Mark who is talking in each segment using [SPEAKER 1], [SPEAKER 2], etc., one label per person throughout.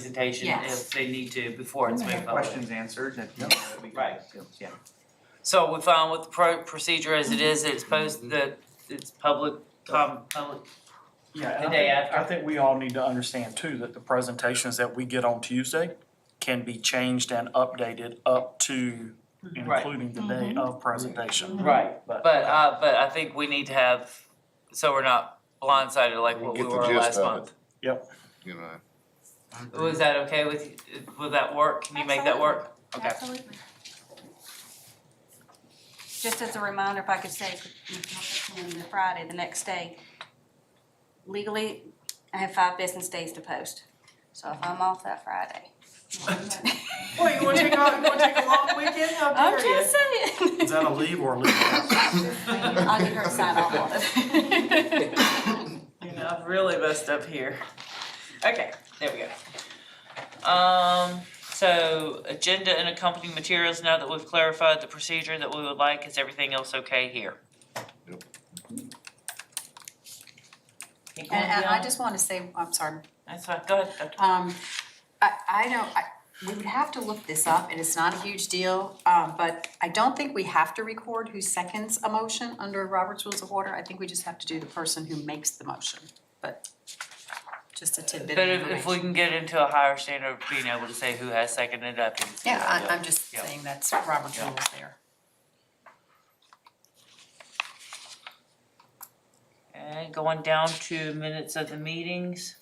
[SPEAKER 1] presentation
[SPEAKER 2] Yes.
[SPEAKER 1] if they need to before it's moved forward.
[SPEAKER 3] Questions answered and. no, that'd be good.
[SPEAKER 1] Right.
[SPEAKER 3] Yeah.
[SPEAKER 1] So we found with the pro- procedure as it is, it's posted, that it's public, com- public,
[SPEAKER 4] Yeah,
[SPEAKER 1] The
[SPEAKER 4] and I
[SPEAKER 1] day
[SPEAKER 4] think, I
[SPEAKER 1] after.
[SPEAKER 4] think we all need to understand too, that the presentations that we get on Tuesday can be changed and updated up to and
[SPEAKER 1] Mm-hmm. Right.
[SPEAKER 4] including the day of presentation.
[SPEAKER 1] right,
[SPEAKER 4] But-
[SPEAKER 1] but, uh, but I think we need to have, so we're not blindsided like what we
[SPEAKER 5] Get the
[SPEAKER 1] were
[SPEAKER 5] gist
[SPEAKER 1] last
[SPEAKER 5] of
[SPEAKER 1] month.
[SPEAKER 5] you know.
[SPEAKER 1] Was that okay with, you? will that work? Can you make that work? Okay.
[SPEAKER 2] Absolutely. Just as a reminder, if I could say, on the Friday, the next day, legally, I have five business days to post. So if I'm off that Friday.
[SPEAKER 6] Well, you wanna take a, you wanna take a long weekend, how
[SPEAKER 2] I'm
[SPEAKER 6] dare you?
[SPEAKER 2] just
[SPEAKER 1] Mm-hmm.
[SPEAKER 2] saying.
[SPEAKER 4] Is that a leave or a leave?
[SPEAKER 2] I'll get her to sign off on it.
[SPEAKER 1] You know, I've really messed up here. Okay, there we go. Um, so agenda and accompanying materials, now that we've clarified the procedure that we would like, is everything else okay here?
[SPEAKER 5] Yep.
[SPEAKER 1] Keep going
[SPEAKER 7] And, and I
[SPEAKER 1] down.
[SPEAKER 7] just want to say, I'm sorry,
[SPEAKER 1] That's fine, go ahead, Dr.
[SPEAKER 7] um, I, I don't, I, we would have to look this up, and it's not a huge deal, um, but I don't think we have to record who seconds a motion under Robert's Rules of Order, I think we just have to do the person who makes the motion, but just a tidbit
[SPEAKER 1] But
[SPEAKER 7] of
[SPEAKER 1] if,
[SPEAKER 7] information.
[SPEAKER 1] if we can get into a higher standard of being able to say who has seconded, I think it's a
[SPEAKER 7] Yeah,
[SPEAKER 1] good idea.
[SPEAKER 7] I, I'm just
[SPEAKER 1] Yeah.
[SPEAKER 7] saying that's Robert's Rules there.
[SPEAKER 1] Okay, going down to minutes of the meetings.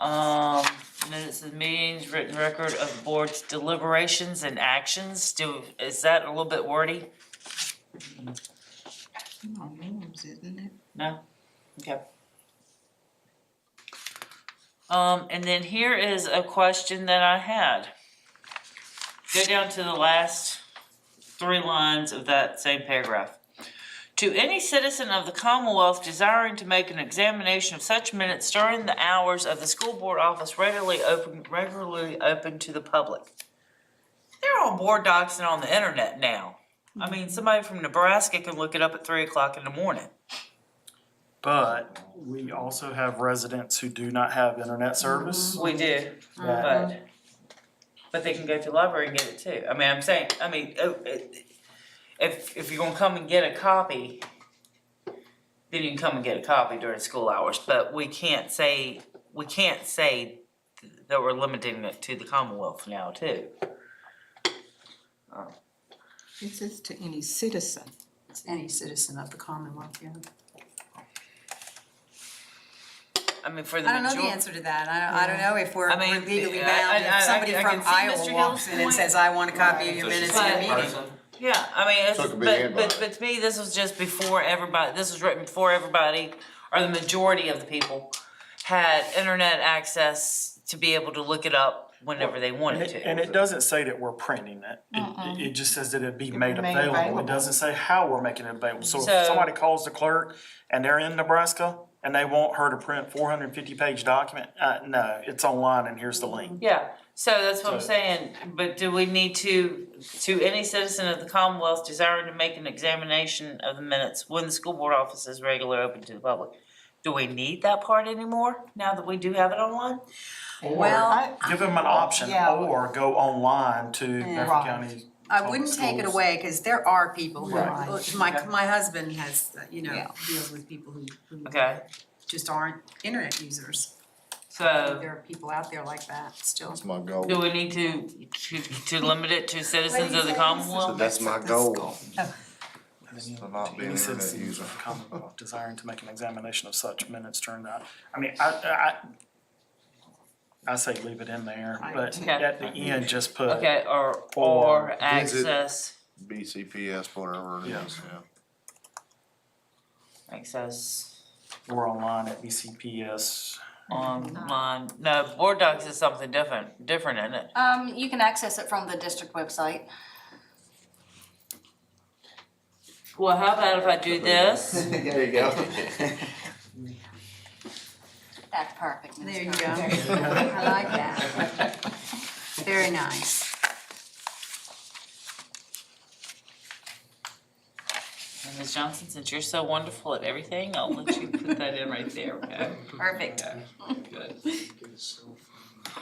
[SPEAKER 1] Um, minutes of meetings, written record of board's deliberations and actions, do, is that a little bit wordy? No? Okay. Um, and then here is a question that I had. Go down to the last three lines of that same paragraph. To any citizen of the Commonwealth desiring to make an examination of such minutes during the hours of the school board office regularly open, regularly open to the public. They're on board docs and on the internet now. I mean, somebody from Nebraska can look it up at three o'clock in the morning.
[SPEAKER 4] But we also have residents who do not have internet service.
[SPEAKER 1] We do,
[SPEAKER 4] that-
[SPEAKER 1] but, but they can go to the library and get it too. I mean, I'm saying, I mean, uh, it- if, if you're gonna come and get a copy, then you can come and get a copy during school hours, but we can't say, we can't say that we're limiting it to the Commonwealth now too.
[SPEAKER 6] It says to any citizen.
[SPEAKER 7] It's Any citizen of the Commonwealth, yeah.
[SPEAKER 1] I mean, for the
[SPEAKER 7] I don't know the
[SPEAKER 1] majority.
[SPEAKER 7] answer to that, I don't, I don't know if we're
[SPEAKER 1] I mean,
[SPEAKER 7] we're legally
[SPEAKER 1] I- I-
[SPEAKER 7] bound,
[SPEAKER 1] I- I
[SPEAKER 7] if somebody
[SPEAKER 1] can- I can
[SPEAKER 7] from
[SPEAKER 1] see Mr.
[SPEAKER 7] Iowa walks
[SPEAKER 1] Hill's
[SPEAKER 7] in and
[SPEAKER 1] point.
[SPEAKER 7] says, I want a copy of your
[SPEAKER 5] Right.
[SPEAKER 7] minutes
[SPEAKER 1] But-
[SPEAKER 7] in a meeting.
[SPEAKER 1] Yeah, I mean, it's,
[SPEAKER 5] Took a big
[SPEAKER 1] but,
[SPEAKER 5] hand
[SPEAKER 1] but,
[SPEAKER 5] by
[SPEAKER 1] but to me, this was just before everybody, this was written before everybody, or the majority of the people had internet access to be able to look it up whenever they
[SPEAKER 4] And
[SPEAKER 1] wanted
[SPEAKER 4] it,
[SPEAKER 1] to.
[SPEAKER 4] and it doesn't say that we're printing it, it, it just says that it'd be made
[SPEAKER 6] be made
[SPEAKER 4] available,
[SPEAKER 6] available.
[SPEAKER 4] it doesn't say how we're making it available, so
[SPEAKER 1] So-
[SPEAKER 4] if somebody calls the clerk and they're in Nebraska and they want her to print four hundred and fifty page document, uh, no, it's online and here's the link.
[SPEAKER 1] Yeah, so that's what I'm
[SPEAKER 4] So-
[SPEAKER 1] saying, but do we need to, to any citizen of the Commonwealth desiring to make an examination of the minutes when the school board office is regularly open to the public? Do we need that part anymore, now that we do have it online?
[SPEAKER 7] Well,
[SPEAKER 4] Give them an option,
[SPEAKER 6] Yeah.
[SPEAKER 4] or go online to Beaufort
[SPEAKER 6] Right.
[SPEAKER 4] County.
[SPEAKER 7] I wouldn't take it
[SPEAKER 4] schools.
[SPEAKER 7] away, cause there are people who,
[SPEAKER 6] Right.
[SPEAKER 7] look, my,
[SPEAKER 1] Okay.
[SPEAKER 7] my husband has, uh, you know,
[SPEAKER 6] Yeah.
[SPEAKER 7] deals with people who, who
[SPEAKER 1] Okay,
[SPEAKER 7] just aren't internet users.
[SPEAKER 1] so.
[SPEAKER 7] There are people out there like that still.
[SPEAKER 5] That's my goal.
[SPEAKER 1] Do we need to, to, to limit it to citizens of the
[SPEAKER 5] So
[SPEAKER 1] Commonwealth?
[SPEAKER 5] that's my goal. For not being
[SPEAKER 4] Any
[SPEAKER 5] an internet
[SPEAKER 4] citizen
[SPEAKER 5] user.
[SPEAKER 4] of the Commonwealth desiring to make an examination of such minutes during that, I mean, I, I, I say leave it in there, but
[SPEAKER 1] Okay.
[SPEAKER 4] at the end, just put.
[SPEAKER 1] Okay, or,
[SPEAKER 4] Or
[SPEAKER 1] or access,
[SPEAKER 5] BCPS, whatever it
[SPEAKER 4] Yeah.
[SPEAKER 5] is, yeah.
[SPEAKER 1] access
[SPEAKER 4] We're online at BCPS.
[SPEAKER 1] online, no, board docs is something different, different, isn't it?
[SPEAKER 2] Um, you can access it from the district website.
[SPEAKER 1] Well, how about if I do this?
[SPEAKER 3] There you go.
[SPEAKER 2] That's perfect. Ms.
[SPEAKER 7] There you
[SPEAKER 2] Carter.
[SPEAKER 7] go. I like that. Very nice.
[SPEAKER 1] And Ms. Johnson, since you're so wonderful at everything, I'll let you put that in right there, okay?
[SPEAKER 2] Perfect.
[SPEAKER 1] Good.